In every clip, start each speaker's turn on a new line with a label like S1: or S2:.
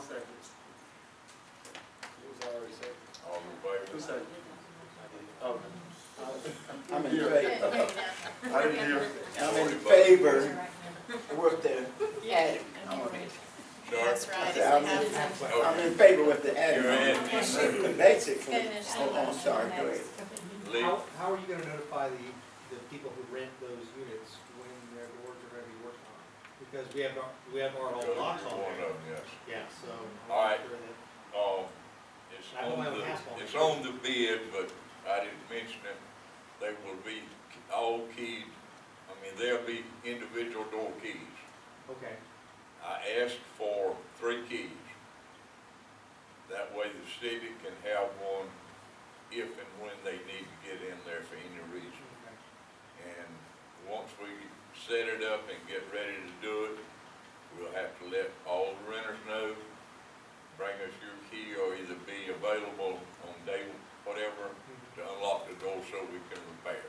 S1: seconds. It was already second.
S2: All in
S1: Who
S2: favor?
S1: seconded? Oh,
S3: I'm in
S1: Yeah.
S3: favor,
S2: I didn't hear.
S3: I'm in favor, with the attic on it.
S4: That's
S3: I
S4: right.
S3: said, I'm in- I'm in favor with the
S2: You're in.
S3: attic. Basically, oh, I'm sorry, go ahead.
S2: Lee,
S5: How, how are you gonna notify the, the people who rent those units when their doors are gonna be worked on? Because we have, our- we have our
S2: Go
S5: whole
S2: to
S5: locks on
S2: one
S5: there.
S2: of them, yes.
S5: Yeah, so. I'm
S2: All right.
S5: sure that-
S2: Um, it's
S5: I don't
S2: on
S5: have a
S2: the,
S5: half on.
S2: it's on the bid, but I didn't mention it. They will be all keyed, I mean, there'll be individual door keys.
S5: Okay,
S2: I asked for three keys. That way the city can have one if and when they need to get in there for any reason.
S5: okay.
S2: And once we set it up and get ready to do it, we'll have to let all the renters know, bring us your key or either be available on day, whatever, to unlock the door so we can repair.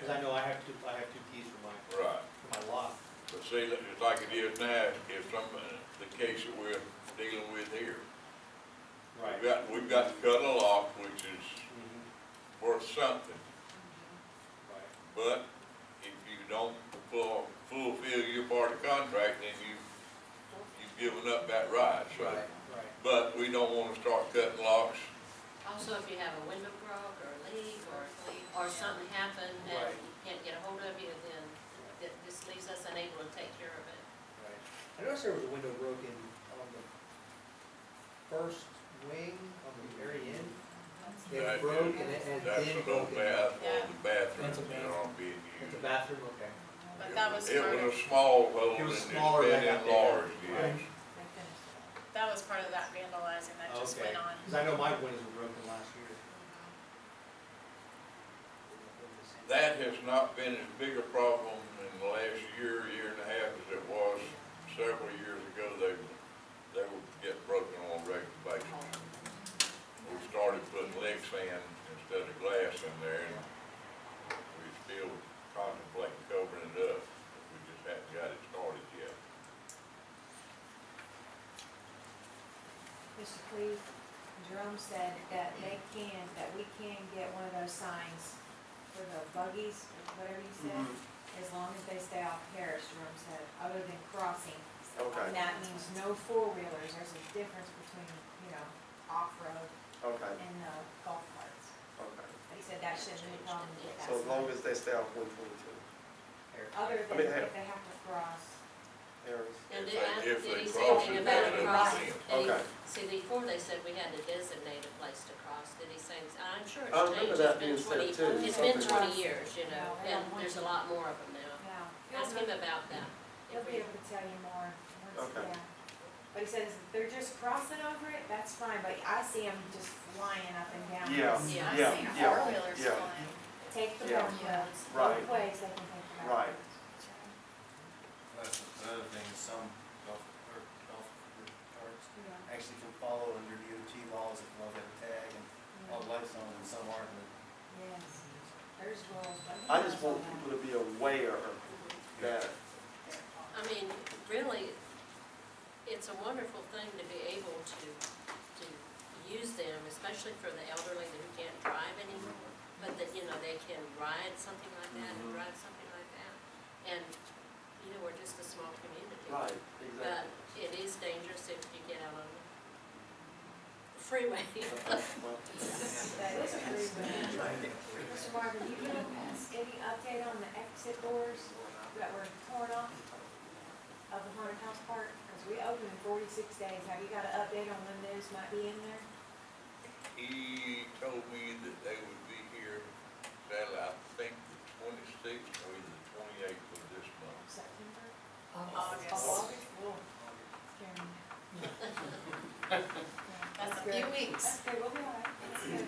S5: Cause I know I have two, I have two keys for my,
S2: Right,
S5: for my lock.
S2: but see, that it's like it is now, if some, uh, the case that we're dealing with here. We've got, we've got to cut a lock, which is
S5: Mhm,
S2: worth something,
S5: Right.
S2: But if you don't fu- fulfill your part of the contract, then you, you've given up that right, so.
S5: Right.
S2: But we don't wanna start cutting locks,
S4: Also, if you have a window broke or a leak or, or something happened and
S5: Right.
S4: you can't get a hold of you, then th- this leaves us unable to take care of it.
S5: Right. I noticed there was a window broken on the first wing, on the very end.
S2: That
S5: It broke
S2: is-
S5: and it has
S2: that's a
S5: been
S2: little
S5: broken.
S2: bad
S4: Yeah.
S2: on the bathroom
S5: That's a
S2: that aren't being
S5: It's a
S2: used.
S5: bathroom, okay.
S4: But that was
S2: It
S4: part
S2: was
S4: of,
S2: a small hole
S5: It
S2: and
S5: was
S2: it's been
S5: smaller than that there.
S2: enlarged, yes.
S5: Right.
S4: that was part of that vandalizing that just
S5: Oh, Okay.
S4: went on.
S5: Cause I know my windows were broken last year.
S2: That has not been as big a problem in the last year, year and a half as it was several years ago. They, they would get broken on a regular basis. We started putting leg sand instead of glass in there and we still contemplate covering it up. We just haven't got it started yet.
S6: Mr. Cleve, Jerome said that they can, that we can get one of those signs for the buggies, whatever you said,
S3: Mm-hmm.
S6: as long as they stay off Parish, Jerome said, other than crossing.
S3: Okay,
S6: And that means no four-wheelers, there's a difference between, you know, off-road
S3: okay,
S6: and the golf carts.
S3: okay.
S6: But he said that shouldn't be a problem to get that
S3: So as
S6: sign.
S3: long as they stay off one twenty-two,
S6: Other
S3: I
S6: than
S3: mean,
S6: if they have to cross,
S3: Harris.
S4: And
S2: If
S4: did I,
S2: they- if
S4: did
S2: they
S4: he say
S2: cross
S4: anything
S2: it,
S4: about a
S6: they're gonna
S4: crossing?
S3: cross it.
S4: Did he-
S3: Okay.
S4: See, before they said we had to designate a place to cross, did he say, I'm sure
S3: I remember
S4: it's changed,
S3: that
S4: it's been
S3: being said
S4: twenty,
S3: too,
S4: it's been
S6: something.
S4: twenty years, you know,
S6: No, they
S4: and
S6: don't want
S4: there's a
S6: you.
S4: lot more of them now.
S6: no.
S4: Ask him about that.
S6: He'll
S4: If we-
S6: be able to tell you more once,
S3: Okay.
S6: yeah. But he says, if they're just crossing over it, that's fine, but I see them just flying up and down.
S4: Yeah,
S3: Yeah,
S4: I
S3: yeah,
S4: see
S3: yeah,
S7: four-wheelers
S3: yeah,
S6: Take the
S3: Yeah.
S6: one roads,
S3: Right.
S6: both ways they can take the
S3: Right.
S6: road.
S8: That's the other thing, is some golf, or golf carts actually can follow under DOT laws if they'll have a tag and all the lights on and some aren't. but-
S6: Yes, there's rules, but.
S3: I just want people to be aware that,
S4: I mean, really, it's a wonderful thing to be able to, to use them, especially for the elderly who can't drive anymore. But that, you know, they can ride something like that and
S3: Mhm.
S4: ride something like that. And, you know, we're just a small community.
S3: right,
S4: But
S3: exactly.
S4: it is dangerous if you get out on the freeway.
S3: Okay, well,
S6: That is true, but- Mr. Marvin, you have any update on the exit doors that were torn off of the haunted house park? Because we opened in forty-six days, have you got an update on when those might be in there?
S2: He told me that they would be here, Saturday, I think the twenty-sixth or either the twenty-eighth of this month.
S6: September?
S4: August.
S6: August? Cool. Jeremy.
S7: That's a few weeks.
S6: Okay, we'll be all right, that's good.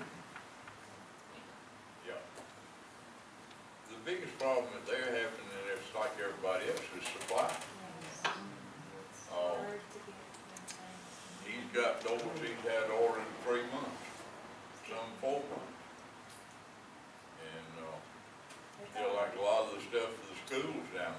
S2: Yeah. The biggest problem that they're having, and it's like everybody else, is supply.
S6: It's
S2: Oh.
S6: hard to get
S2: He's got doors he's had ordered in three months, some four months. uh, And, uh,
S6: them done.
S2: feel like a lot of the stuff for the schools down there.